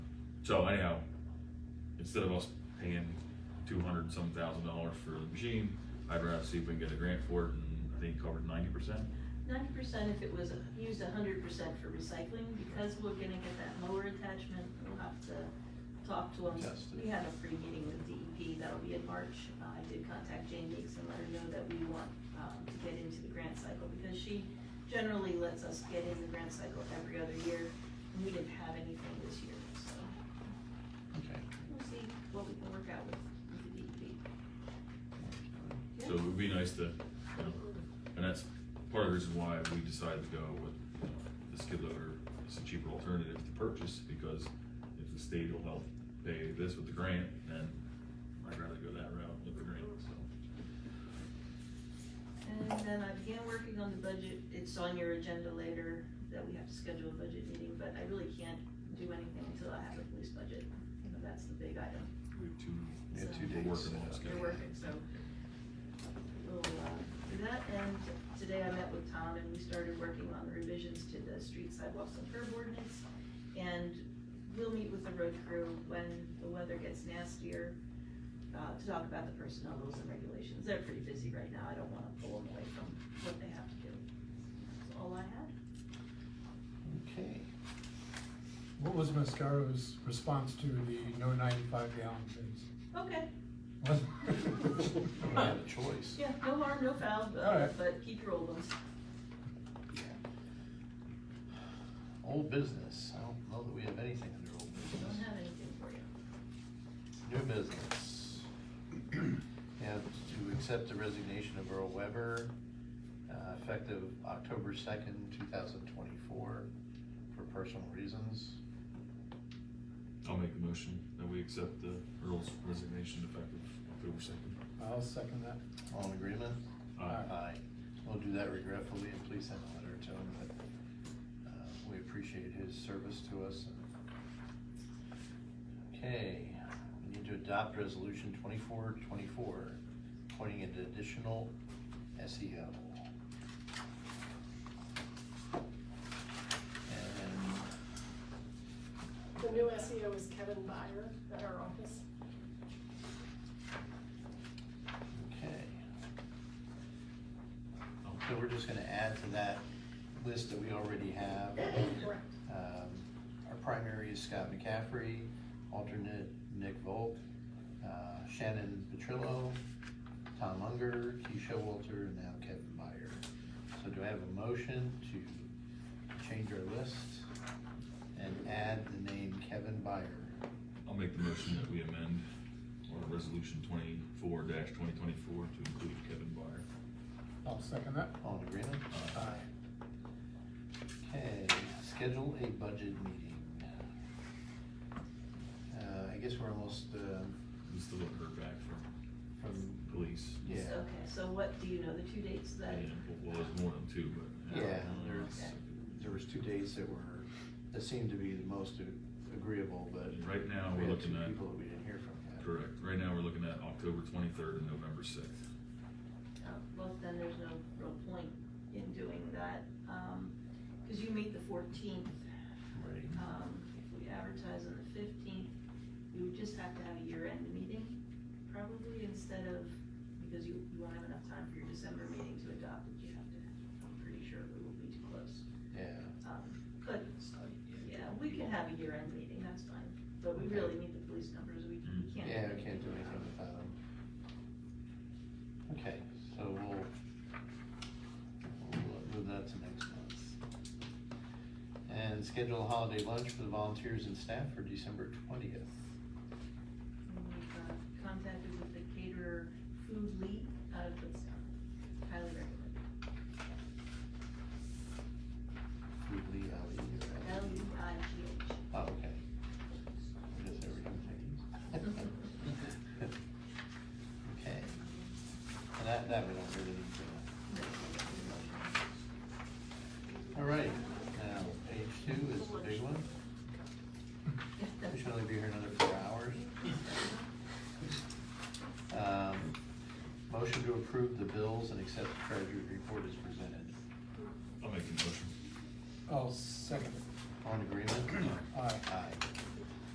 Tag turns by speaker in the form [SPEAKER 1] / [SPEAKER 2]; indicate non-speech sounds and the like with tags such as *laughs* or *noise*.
[SPEAKER 1] So anyhow, instead of us paying two hundred some thousand dollars for the machine, I'd rather see if we can get a grant for it and I think it covered ninety percent.
[SPEAKER 2] Ninety percent if it was used hundred percent for recycling, because we're gonna get that mower attachment, we'll have to talk to them.
[SPEAKER 3] Test it.
[SPEAKER 2] We have a free meeting with DEP, that'll be in March, Uh, I did contact Jane Meeks and let her know that we want, um, to get into the grant cycle, because she generally lets us get in the grant cycle every other year, and we didn't have anything this year, so
[SPEAKER 3] Okay.
[SPEAKER 2] we'll see what we can work out with, with the E DEP.
[SPEAKER 1] So it would be nice to, you know, and that's part of the reason why we decided to go with, you know, the skid loader. It's a cheaper alternative to purchase because if the state will help pay this with the grant, then I'd rather go that route with the grant, so.
[SPEAKER 2] And then I began working on the budget, it's on your agenda later, that we have to schedule a budget meeting, but I really can't do anything until I have a police budget, you know, that's the big item.
[SPEAKER 1] We have two,
[SPEAKER 2] Yeah, two
[SPEAKER 1] we're
[SPEAKER 3] dates.
[SPEAKER 1] working on
[SPEAKER 2] They're
[SPEAKER 1] scheduling.
[SPEAKER 2] working, so we'll, uh, do that, and today I met with Tom and we started working on the revisions to the street sidewalks and curb ordinance. And we'll meet with the road crew when the weather gets nastier, uh, to talk about the personnel rules and regulations. They're pretty busy right now, I don't wanna pull them away from what they have to do. That's all I have.
[SPEAKER 3] Okay.
[SPEAKER 4] What was Mascaro's response to the no ninety-five gallon
[SPEAKER 2] Okay,
[SPEAKER 4] things?
[SPEAKER 3] We don't *laughs* have a choice.
[SPEAKER 2] yeah, no harm, no foul,
[SPEAKER 4] All
[SPEAKER 2] but,
[SPEAKER 4] right.
[SPEAKER 2] but keep your old ones.
[SPEAKER 3] Yeah. Old business. I don't know that we have anything under old
[SPEAKER 2] Don't
[SPEAKER 3] business.
[SPEAKER 2] have anything for you.
[SPEAKER 3] New business. *clears throat* Have to accept the resignation of Earl Weber, uh, effective October second, two thousand twenty-four, for personal reasons.
[SPEAKER 1] I'll make the motion that we accept the Earl's resignation effective October second.
[SPEAKER 4] I'll second that.
[SPEAKER 3] All in agreement?
[SPEAKER 4] Aye.
[SPEAKER 3] Aye. We'll do that regretfully, and please send a letter to him that, uh, we appreciate his service to us. Okay, we need to adopt resolution twenty-four twenty-four, appointing an additional E SEO. And
[SPEAKER 5] The new SEO is Kevin Byer at our office.
[SPEAKER 3] Okay. So we're just gonna add to that list that we already have.
[SPEAKER 5] Correct.
[SPEAKER 3] Um, Our primary is Scott McCaffrey, alternate Nick Volk, uh, Shannon Petrillo, Tom Unger, Keisha Walter, and now Kevin Meyer. So do I have a motion to change our list and add the name Kevin Meyer?
[SPEAKER 1] I'll make the motion that we amend our resolution twenty-four twenty twenty-four to include Kevin Byer.
[SPEAKER 4] I'll second that.
[SPEAKER 3] All in agreement?
[SPEAKER 4] Aye.
[SPEAKER 3] Okay, schedule a budget meeting. Uh, I guess we're almost, um,
[SPEAKER 1] We still haven't heard back from
[SPEAKER 3] from,
[SPEAKER 1] police.
[SPEAKER 3] yeah.
[SPEAKER 2] Okay, so what, do you know the two dates of that? Oh,
[SPEAKER 1] And, Well, there's more than two, but.
[SPEAKER 3] Yeah,
[SPEAKER 1] Uh,
[SPEAKER 3] there's- There was two dates that were, that seemed to be the most agreeable, but.
[SPEAKER 1] Right now, we're
[SPEAKER 3] we had
[SPEAKER 1] looking
[SPEAKER 3] two
[SPEAKER 1] at-
[SPEAKER 3] People that we didn't hear from yet.
[SPEAKER 1] Correct. Right now, we're looking at October twenty-third and November sixth.
[SPEAKER 2] Uh, Well, then there's no real point in doing that, um, cause you meet the fourteenth,
[SPEAKER 3] Right.
[SPEAKER 2] um, if we advertise on the fifteenth, you would just have to have a year-end meeting, probably instead of, because you, you won't have enough time for your December meeting to adopt it, you have to, I'm pretty sure we will be too close.
[SPEAKER 3] Yeah.
[SPEAKER 2] Um, but, yeah, we can have a year-end meeting, that's fine, but we really need the police numbers, we we can't.
[SPEAKER 3] Yeah, we can't do anything without them. Okay, so we'll, we'll move that to next month. And schedule a holiday lunch for the volunteers and staff for December twentieth.
[SPEAKER 2] And We've uh, contacted with the caterer Food League out of Kutztown. Highly recommend.
[SPEAKER 3] Weekly, uh, year
[SPEAKER 2] L
[SPEAKER 3] end.
[SPEAKER 2] U I G H.
[SPEAKER 3] Oh, okay. I guess every time I use. Okay. And that, that we don't really need to. All right, now, page two is the big one. We should only be here another four hours. Um, Motion to approve the bills and accept the treasurer's report as presented.
[SPEAKER 1] I'll make the motion.
[SPEAKER 4] I'll second it.
[SPEAKER 3] *clears throat* All in agreement?
[SPEAKER 4] Aye.
[SPEAKER 3] Aye.